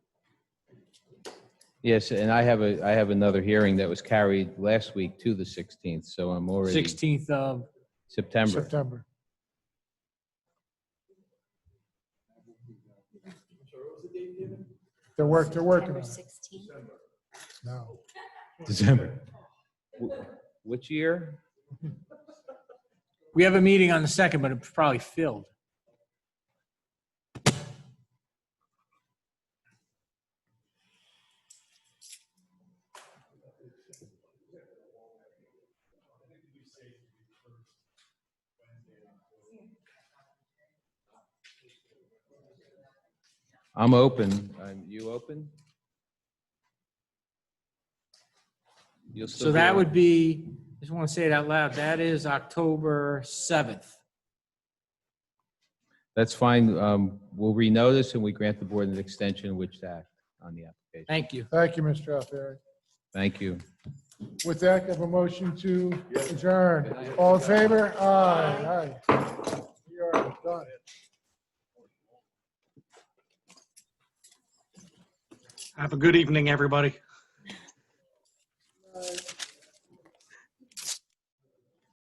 Yes, and I have a, I have another hearing that was carried last week to the 16th, so I'm already 16th of September. September. They're work, they're working on it. Sixteen. No, December. Which year? We have a meeting on the second, but it's probably filled. I'm open. Um, You open? You'll still be So that on. would be, I just want to say it out loud, that is October 7th. That's fine. Um, We'll renotice and we grant the board an extension which act on the application. Thank you. thank you, Mr. Alfieri. Thank you. With that, I have a motion to adjourn. All in favor? Aye, aye. We are done. Have a good evening, everybody.